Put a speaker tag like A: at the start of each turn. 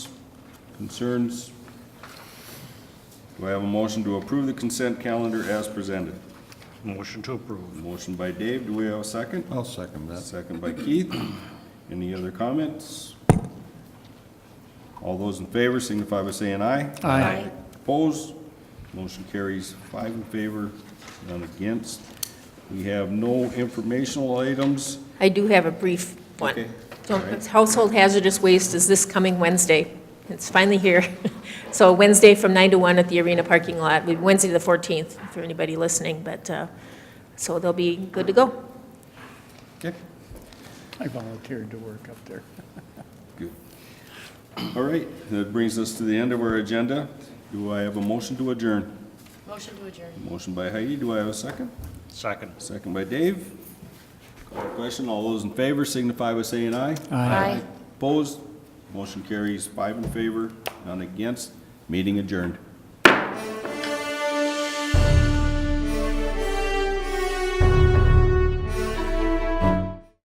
A: concerns? Do I have a motion to approve the consent calendar as presented?
B: Motion to approve.
A: Motion by Dave, do we have a second?
C: I'll second that.
A: Second by Keith. Any other comments? All those in favor signify by saying aye.
B: Aye.
A: Opposed? Motion carries five in favor, none against. We have no informational items.
D: I do have a brief
A: Okay.
D: one. So
A: All right.
D: it's Household hazardous waste is this coming Wednesday. It's finally here. So Wednesday from 9 to 1 at the arena parking lot, We- Wednesday the 14th, for anybody listening, but, uh, so they'll be good to go.
A: Okay.
E: I volunteered to work up there.
A: Good. All right, that brings us to the end of our agenda. Do I have a motion to adjourn?
F: Motion to adjourn.
A: Motion by Heidi, do I have a second?
B: Second.
A: Second by Dave. Call the question, all those in favor signify by saying aye.
F: Aye.
A: Opposed? Motion carries five in favor, none against. Meeting adjourned.